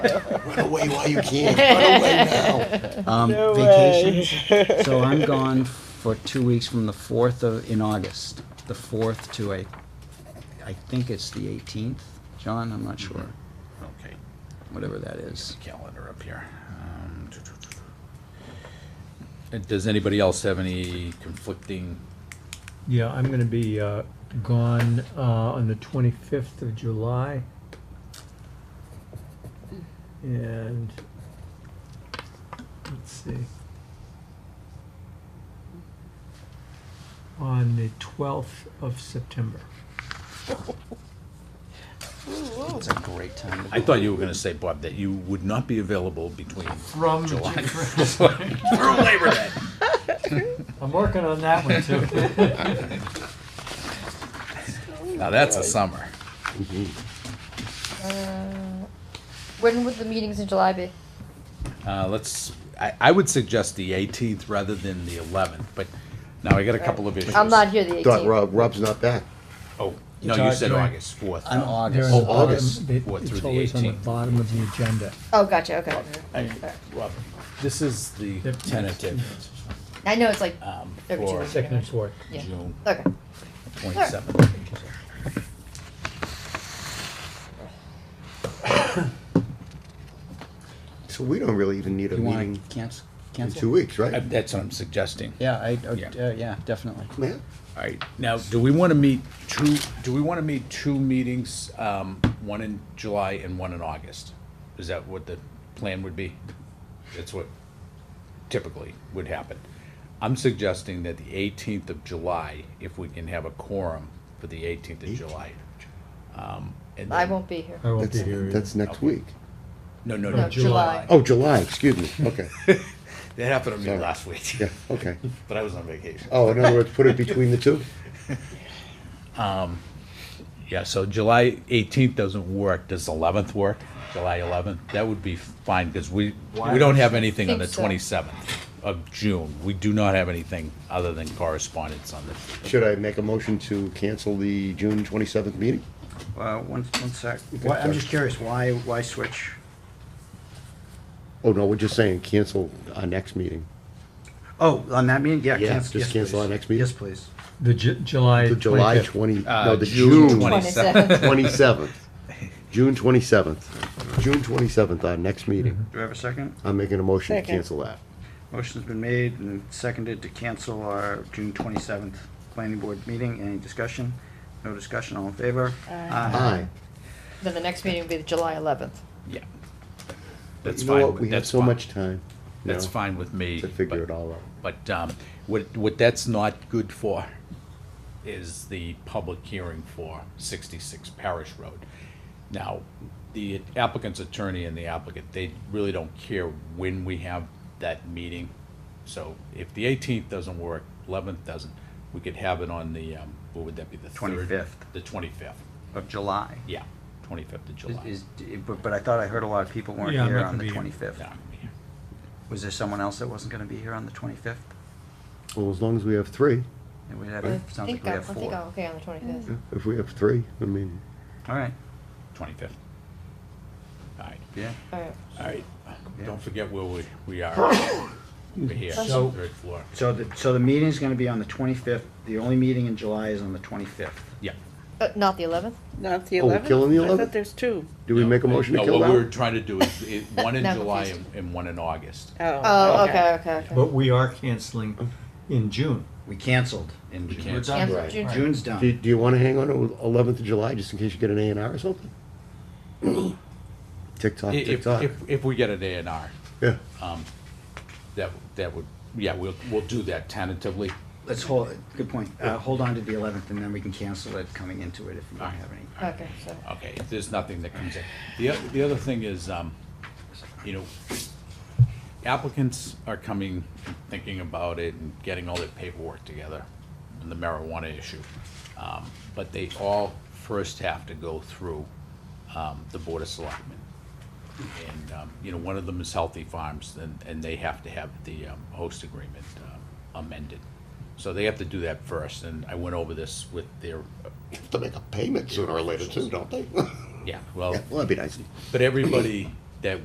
Run away while you can. Run away now. Um, No way. vacations. so I'm gone for two weeks from the fourth of in August, the fourth to a, I think it's the 18th. John, I'm not sure. Okay, Whatever that is. calendar up here. Um, And Does anybody else have any conflicting? Yeah, I'm gonna be uh, gone uh, on the 25th of July. And, let's see. On the 12th of September. It's a great time. To I thought you were gonna say, Bob, that you would not be available between From July. Through Labor Day. I'm working on that one too. Now, that's a summer. Uh, When would the meetings in July be? Uh, let's, I, I would suggest the eighteenth rather than the eleventh, but now I got a couple of issues. I'm not here the Dot 18th. Rob, Rob's not back. Oh, no, You're you said talking- August fourth. I'm They're August. on the Oh, bottom- August, they- what, through It's the always on the 18th? bottom of the agenda. Oh, gotcha, okay. Robert, this is the Yep. tentative I know it's like um, every two for weeks. Second and fourth. Yeah. June Okay. twenty-seventh. So we don't really even need a You want meeting to cancel? in Cancel? two weeks, right? Uh, That's what I'm suggesting. Yeah, I, uh, Yeah. yeah. yeah, definitely. Man, All right, now, do we want to meet two, do we want to meet two meetings, um, one in July and one in August? Is that what the plan would be? That's what typically would happen. I'm suggesting that the eighteenth of July, if we can have a quorum for the eighteenth of July. Um, and I then- won't be here. I won't that's, be here. that's next Okay. week. No, no, No, no, July. July. Oh, July, excuse me. Okay, that happened to me Sorry. last week, yeah, okay. but I was on vacation. Oh, in other words, put it between the two? Yeah, so July eighteenth doesn't work. Does eleventh work? July eleventh? That would be fine, because we, we don't have anything on the Think so. twenty-seventh of June. We do not have anything other than correspondence on the, Should I make a motion to cancel the June twenty-seventh meeting? Uh, one, one sec. Why, I'm just curious, why, why switch? Oh, no, we're just saying cancel our next meeting. Oh, on that meeting? Yeah, Yeah, cancel. just yes, cancel please. our next meeting. Yes, please. The Ju- July The July 25th. twenty, no, uh, the June June twenty-seventh. 27th. twenty-seventh. June twenty-seventh. June twenty-seventh, our next meeting. Mm-hmm. Do I have a second? I'm making a motion to Second. cancel that. Motion's been made and seconded to cancel our June twenty-seventh planning board meeting. Any discussion? No discussion, all in favor? Ah, Aye. Then the next meeting will be the July 11th. yeah. That's You know fine, what? We with- have that's so fine, much time. that's now fine with me. To figure but- it all out. But, um, what, what that's not good for is the public hearing for sixty-six Parish Road. Now, the applicant's attorney and the applicant, they really don't care when we have that meeting. So if the eighteenth doesn't work, eleventh doesn't, we could have it on the, um, what would that be, the third? 25th. The twenty-fifth, Of July. yeah, twenty-fifth of Is- July. Is, but, but I thought I heard a lot of people weren't Yeah, I'm here not on gonna the be here. twenty-fifth. Yeah, I mean, Was there someone else that wasn't gonna be here on the twenty-fifth? Well, as long as we have three, And we have, I sounds like think we I'm, I have think I'm four. okay on the 25th. if we have three, I mean, All right, Twenty-fifth. All right, yeah. All right. all right, Yeah. don't forget where we, we are, over here, So- third floor, So the, so the meeting's gonna be on the twenty-fifth. The only meeting in July is on the twenty-fifth. yeah. Uh, not the 11th? Not the Oh, we're eleventh? killing the I 11th? thought there's two. do we make a motion to No, kill what that? we're one? trying to do is, is one in Now July and, confused. and one in August. Oh, okay, okay, okay. But we are canceling in June. We canceled in We June. canceled. We're done. Cancel Right. June- June's Do, done. do you wanna hang on to eleventh of July, just in case you get an A and R or something? Tick tock, I- tick If, tock. if, if we get an A and R, Yeah, that, that would, yeah, we'll, we'll do that tentatively. Let's hold, it. good point. Uh, hold on to the eleventh and then we can cancel it coming into it if we don't have any. Okay, so. Okay, if there's nothing that comes in. The, oth- the other thing is, um, you know, applicants are coming, and thinking about it and getting all their paperwork together on the marijuana issue. Um, but they all first have to go through, um, the Board of Selectmen. And, um, you know, one of them is Healthy Farms, and, and they have to have the, um, host agreement uh, amended. So they have to do that first, and I went over this with their, have to make a payment sooner or later too, don't they? yeah, well, Yeah, well, that'd be nice. But everybody